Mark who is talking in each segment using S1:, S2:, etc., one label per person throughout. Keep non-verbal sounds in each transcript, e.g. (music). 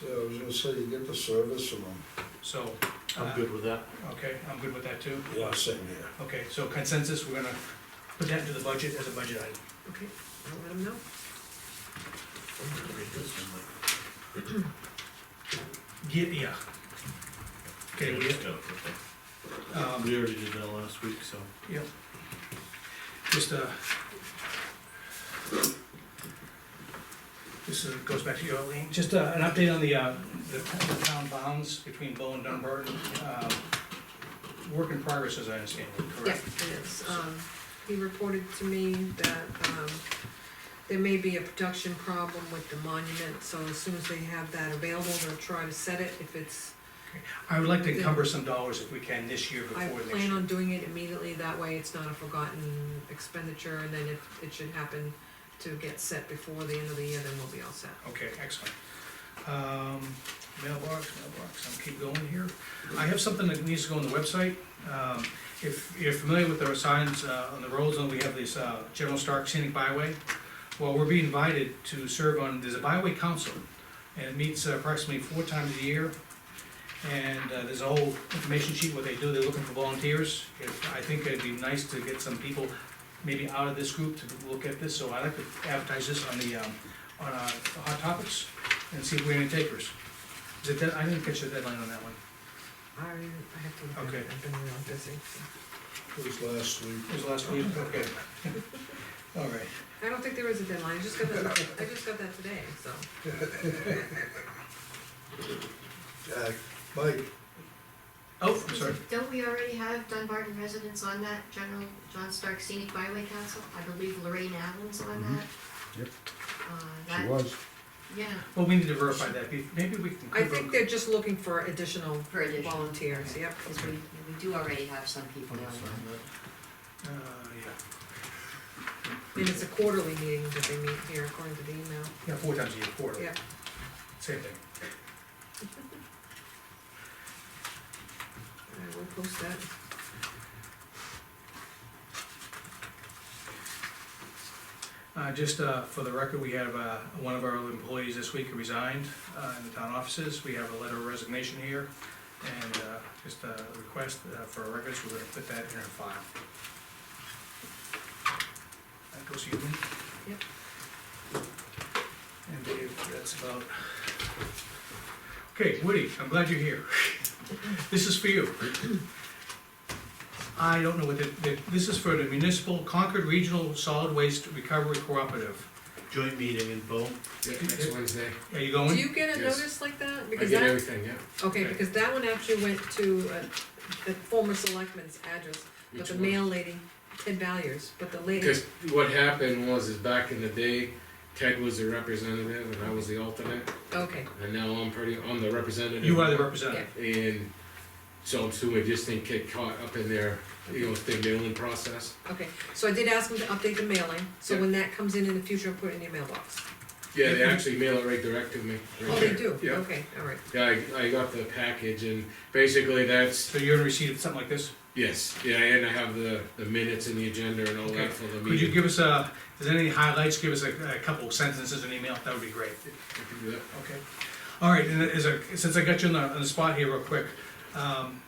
S1: Yeah, I was gonna say, you get the service from them.
S2: so.
S3: I'm
S2: uh,
S3: good with that.
S2: Okay, I'm good with that too.
S1: Yeah, same here.
S2: Okay, so consensus, we're gonna put that into the budget as a budget item.
S4: Okay, I'll let him know.
S2: Yeah, yeah. Okay, we,
S5: Yeah, okay.
S2: um,
S3: We already did that last week, so.
S2: Yep. Just, uh, this uh, goes back to you, Eileen, just uh, an update on the, uh, the the town bounds between Bow and Dunbarton. Um, Work in progress, as I understand it,
S4: Yeah,
S2: correct?
S4: it is. Um, he reported to me that, um, there may be a production problem with the monument, so as soon as they have that available, they'll try to set it. If it's,
S2: I would like to encumber some dollars if we can this year
S4: I
S2: before next
S4: plan
S2: year.
S4: on doing it immediately, that way it's not a forgotten expenditure, and then if it should happen to get set before the end of the year, then we'll be all set.
S2: Okay, excellent. Um, mailbox, mailbox, I'll keep going here. I have something that needs to go on the website. Um, if you're familiar with our signs, uh, on the roads, and we have this, uh, General Stark Scenic Byway. Well, we're being invited to serve on, there's a byway council, and it meets approximately four times a year. And, uh, there's a whole information sheet, what they do, they're looking for volunteers. If, I think it'd be nice to get some people maybe out of this group to look at this, so I'd like to advertise this on the, um, on uh, Hot Topics and see if we have any takers. Is it that, I didn't catch the deadline on that one.
S4: I, I have to,
S2: at it. Okay.
S4: I've been real busy.
S1: It was last week.
S2: It was last week, okay. (laughs) All right,
S4: I don't think there is a deadline, I just got that, I just got that today,
S2: (laughs)
S4: so.
S1: Jack, Uh, Mike,
S2: oh, I'm sorry,
S6: Don't we already have Dunbarton residents on that, General John Stark Scenic Byway Council? I believe Lorraine Allen's on that.
S7: Mm-hmm. Yep.
S6: Uh,
S7: She
S6: that-
S7: was.
S6: Yeah,
S2: well, we need to verify that, Be- maybe we can.
S4: I think they're just looking for additional
S6: For additional.
S4: volunteers, yep.
S6: because we, we do already have some people on
S3: Sign
S6: that.
S3: that.
S2: Uh, yeah,
S4: And it's a quarterly meeting that they meet here, according to the email,
S2: yeah, four times a year, four,
S4: yeah.
S2: same thing.
S4: I will post that.
S2: Uh, just, uh, for the record, we have, uh, one of our employees this week who resigned, uh, in the town offices, we have a letter of resignation here. And, uh, just a request, uh, for records, we're gonna put that in our file. That goes to you, Lynn?
S4: Yep.
S2: And Dave, that's about. Okay, Woody, I'm glad you're here. (laughs) This is for you. I don't know what the, the- this is for the municipal Concord Regional Solid Waste Recovery Cooperative.
S3: Joint meeting in Bow.
S7: Yeah, next Wednesday.
S2: Are you
S4: Do
S2: going?
S4: you get a
S7: Oh, Yes.
S4: notice like that?
S7: I
S4: Because
S7: did
S4: that,
S7: everything, yeah.
S4: okay,
S2: Okay.
S4: because that one actually went to, uh, the former selectman's address, but
S7: Which
S4: the
S7: one?
S4: mail lady, Ted Valiers, but the lady,
S7: Because what happened was, is back in the day, Ted was the representative and I was the alternate,
S4: okay,
S7: and now I'm pretty, I'm the representative.
S2: You are the representative.
S7: And so I'm assuming just didn't get caught up in their, you know, the mailing process.
S4: okay. So I did ask him to update the mailing, so
S7: Yeah.
S4: when that comes in in the future, put it in your mailbox.
S7: Yeah, they actually mail it right direct to me. right
S4: Oh, they
S7: there.
S4: do?
S7: Yeah,
S4: Okay, all right.
S7: yeah, I, I got the package and basically that's,
S2: So you're in receipt of something like this?
S7: yes, yeah, and I have the, the minutes and the agenda and all
S2: Okay.
S7: that for the meeting.
S2: Could you give us a, if there's any highlights, give us a, a couple sentences in email, that would be great.
S7: I can do that.
S2: Okay. All right, and as a, since I got you on the, on the spot here real quick, um,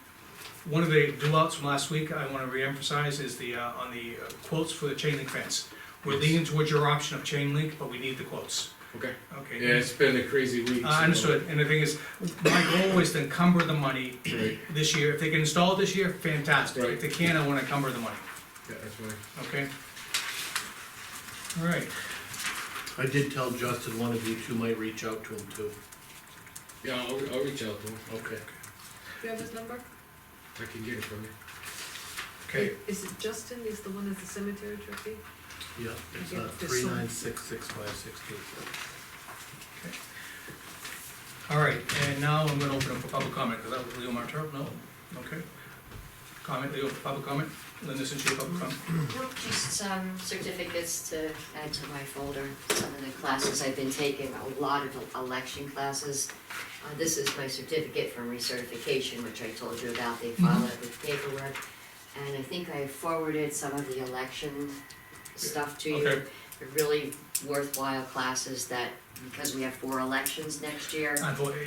S2: one of the do-outs from last week I wanna reemphasize is the, uh, on the uh, quotes for the chain link fence. We're leaning towards your option of chain link, but we need the quotes,
S7: Okay.
S2: okay?
S7: Yeah, it's been a crazy week.
S2: Uh, I
S7: so-
S2: understood, and the thing is, my goal is to encumber the money
S7: Right,
S2: this year, if they can install it this year, fantastic, if
S7: Right.
S2: they can't, I wanna encumber the money,
S7: yeah, that's fine.
S2: okay? All right,
S3: I did tell Justin one of you two might reach out to him too.
S7: Yeah, I'll, I'll reach out to him.
S3: Okay.
S4: Do you have his number?
S7: I can get it from you.
S2: okay,
S4: Is it Justin, is the one that's the cemetery trustee?
S3: Yeah, it's
S4: Yeah,
S3: uh,
S4: there's
S3: three
S4: so-
S3: nine six six five six two.
S2: all right, and now I'm gonna open up for public comment, because that was Leo Martell, no, okay? Comment, Leo, public comment, Linda, since you're public comment,
S6: Nope, just some certificates to add to my folder, some of the classes I've been taking, a lot of election classes. Uh, this is my certificate from recertification, which I told you about, they file it with paperwork. And I think I forwarded some of the election stuff to you.
S2: Okay.
S6: They're really worthwhile classes that, because we have four elections next year.
S2: Unfortunately,